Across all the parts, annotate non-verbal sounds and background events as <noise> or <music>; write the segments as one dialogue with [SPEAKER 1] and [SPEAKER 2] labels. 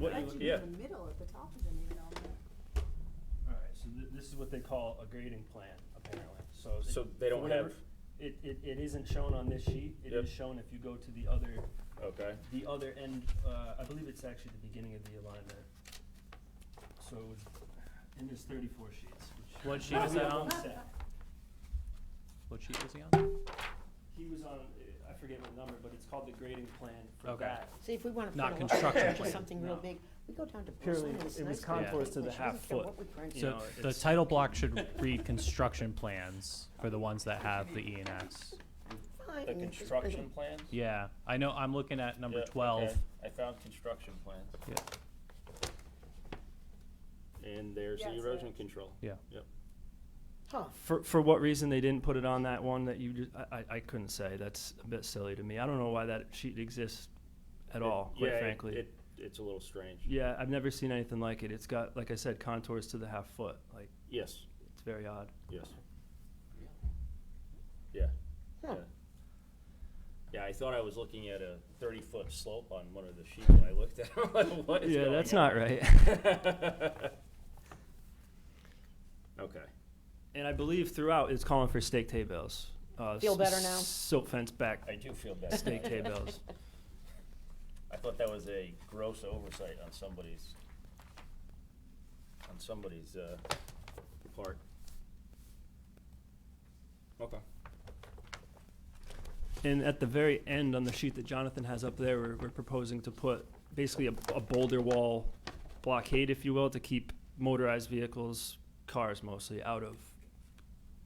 [SPEAKER 1] What you-
[SPEAKER 2] That should be
[SPEAKER 1] yeah.
[SPEAKER 2] in the middle, at the top of the new development.
[SPEAKER 1] Alright, so th- this is what they call a grading plan, apparently, so. it-
[SPEAKER 3] So they don't
[SPEAKER 1] whatever-
[SPEAKER 3] have-
[SPEAKER 1] It, it, it isn't shown on this sheet, it
[SPEAKER 3] Yep.
[SPEAKER 1] is shown if you go to the other,
[SPEAKER 3] Okay,
[SPEAKER 1] the other end, uh, I believe it's actually the beginning of the alignment. So it was, and there's thirty-four sheets, which.
[SPEAKER 4] What sheet is
[SPEAKER 1] we
[SPEAKER 4] that
[SPEAKER 1] have
[SPEAKER 4] on?
[SPEAKER 1] one um, set.
[SPEAKER 4] What sheet was he on?
[SPEAKER 1] He was on, uh, I forget what number, but it's called the grading plan for
[SPEAKER 4] Okay.
[SPEAKER 1] that.
[SPEAKER 2] See, if we wanna put a
[SPEAKER 4] Not
[SPEAKER 2] lot of
[SPEAKER 4] construction
[SPEAKER 2] pictures,
[SPEAKER 4] plan,
[SPEAKER 2] something real
[SPEAKER 1] no.
[SPEAKER 2] big, we go down to
[SPEAKER 1] Purely,
[SPEAKER 2] Brooklyn, and it's
[SPEAKER 1] it was
[SPEAKER 2] nice. looking
[SPEAKER 1] contours to
[SPEAKER 2] pictures.
[SPEAKER 1] the
[SPEAKER 2] She
[SPEAKER 1] half
[SPEAKER 2] doesn't care
[SPEAKER 1] foot.
[SPEAKER 2] what we print.
[SPEAKER 1] You
[SPEAKER 4] So
[SPEAKER 1] know,
[SPEAKER 4] the
[SPEAKER 1] it's-
[SPEAKER 4] title block should read construction plans for the ones that have the E and S.
[SPEAKER 2] Fine,
[SPEAKER 3] the
[SPEAKER 2] it's just
[SPEAKER 3] construction
[SPEAKER 2] pretty.
[SPEAKER 3] plans?
[SPEAKER 4] Yeah, I know, I'm looking at number
[SPEAKER 3] Yeah,
[SPEAKER 4] twelve.
[SPEAKER 3] okay. I found construction plans.
[SPEAKER 4] Yeah,
[SPEAKER 3] And there's
[SPEAKER 2] Yeah,
[SPEAKER 3] the
[SPEAKER 2] it's
[SPEAKER 3] erosion
[SPEAKER 2] there.
[SPEAKER 3] control.
[SPEAKER 4] Yeah,
[SPEAKER 2] Huh,
[SPEAKER 1] For, for what reason they didn't put it on that one that you just, I, I, I couldn't say, that's a bit silly to me, I don't know why that sheet exists at all,
[SPEAKER 3] Yeah,
[SPEAKER 1] quite
[SPEAKER 3] it-
[SPEAKER 1] frankly.
[SPEAKER 3] It, it's a little strange.
[SPEAKER 1] Yeah, I've never seen anything like it. It's got, like I said, contours to the half foot. Like
[SPEAKER 3] Yes,
[SPEAKER 1] it's very odd.
[SPEAKER 3] yes. Yeah,
[SPEAKER 2] huh.
[SPEAKER 3] yeah. Yeah, I thought I was looking at a thirty-foot slope on one of the sheets when I looked at <laughs> it. Like, What is
[SPEAKER 1] yeah,
[SPEAKER 3] going
[SPEAKER 1] that's
[SPEAKER 3] on?
[SPEAKER 1] not right.
[SPEAKER 3] <laughs>
[SPEAKER 1] <laughs>
[SPEAKER 3] Okay,
[SPEAKER 1] and I believe throughout it's calling for stake hay bales. Uh,
[SPEAKER 2] Feel
[SPEAKER 1] s-
[SPEAKER 2] better now?
[SPEAKER 1] Silt fence back
[SPEAKER 3] I do feel better.
[SPEAKER 1] stake hay
[SPEAKER 2] <laughs>
[SPEAKER 1] bales.
[SPEAKER 3] I thought that was a gross oversight on somebody's, on somebody's, uh, part. Okay.
[SPEAKER 1] And at the very end on the sheet that Jonathan has up there, we're, we're proposing to put basically a, a boulder wall blockade, if you will, to keep motorized vehicles, cars mostly, out of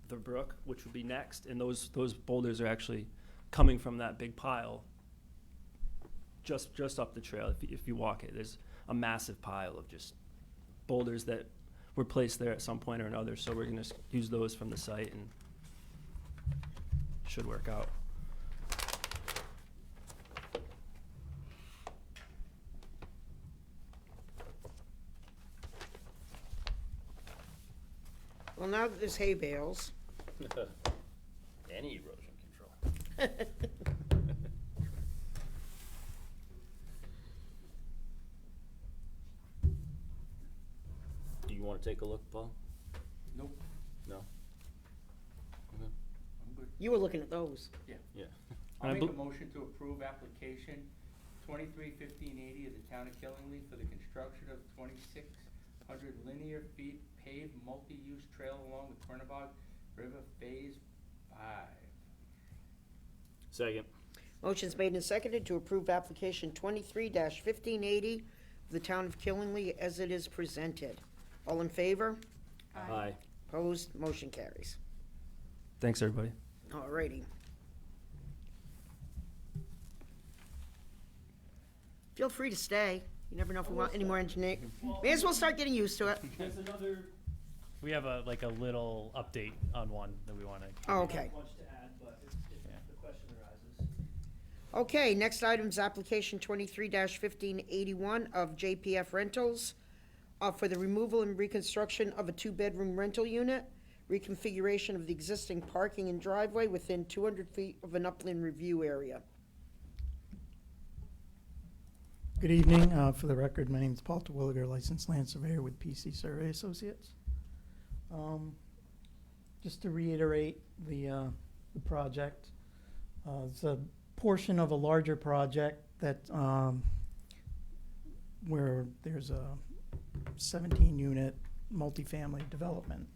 [SPEAKER 1] the brook, which would be next. And those, those boulders are actually coming from that big pile just, just up the trail. If, you- if you walk it, there's a massive pile of just boulders that were placed there at some point or another. So we're going to use those from the site and should work out.
[SPEAKER 5] Well, now that there's hay bales,
[SPEAKER 3] <laughs>
[SPEAKER 5] <laughs>
[SPEAKER 3] Any erosion control. <laughs> Do you wanna take a look, Paul?
[SPEAKER 6] Nope,
[SPEAKER 3] No?
[SPEAKER 6] I'm good.
[SPEAKER 5] you were looking at those.
[SPEAKER 3] Yeah.
[SPEAKER 1] I
[SPEAKER 6] I'll make
[SPEAKER 1] bel-
[SPEAKER 6] a motion to approve application twenty-three fifteen eighty of the town of Killingly for the construction of twenty-six hundred linear feet paved multi-use trail along the Quernabog River Phase Five.
[SPEAKER 3] Second.
[SPEAKER 5] Motion's made and seconded to approve application twenty-three fifteen eighty of the town of Killingly as it is presented. All in favor?
[SPEAKER 3] Aye.
[SPEAKER 5] Opposed? Motion carries.
[SPEAKER 1] Thanks, everybody.
[SPEAKER 5] Alrighty. Feel free to stay. You never know if we want any more engineer. May as well start getting used to it.
[SPEAKER 1] There's another,
[SPEAKER 4] we have a, like a little update on one that we wanna.
[SPEAKER 5] Oh, okay.
[SPEAKER 1] much to add, but if,
[SPEAKER 4] Yeah.
[SPEAKER 1] if the question arises.
[SPEAKER 5] Okay, next item's application twenty-three fifteen eighty-one of JPF Rentals uh, for the removal and reconstruction of a two-bedroom rental unit, reconfiguration of the existing parking and driveway within two hundred feet of an upland review area.
[SPEAKER 7] Good evening. Uh, For the record, my name is Paul Terwilliger, licensed land surveyor with PC Survey Associates. Um, Just to reiterate the, uh, the project, uh, it's a portion of a larger project that, um, where there's a 17-unit multifamily development.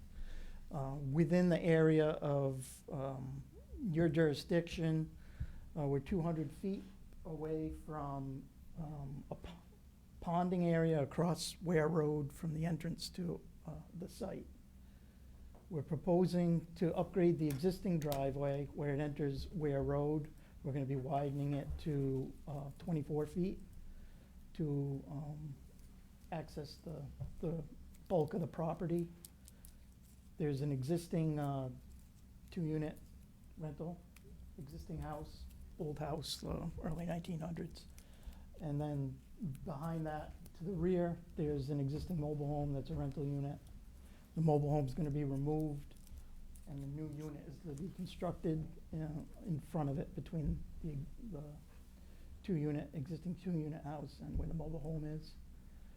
[SPEAKER 7] Uh, Within the area of um, your jurisdiction, uh, we're 200 feet away from um, a p- ponding area across Ware Road from the entrance to uh, the site. We're proposing to upgrade the existing driveway where it enters Ware Road. We're gonna be widening it to uh, twenty-four feet to um, access the, the bulk of the property. There's an existing uh, two-unit rental, existing house, old house, uh, early nineteen hundreds. And then behind that, to the rear, there's an existing mobile home that's a rental unit. The mobile home's gonna be removed, and the new unit is to be constructed, you know, in front of it between the, the two-unit, existing two-unit house and where the mobile home is.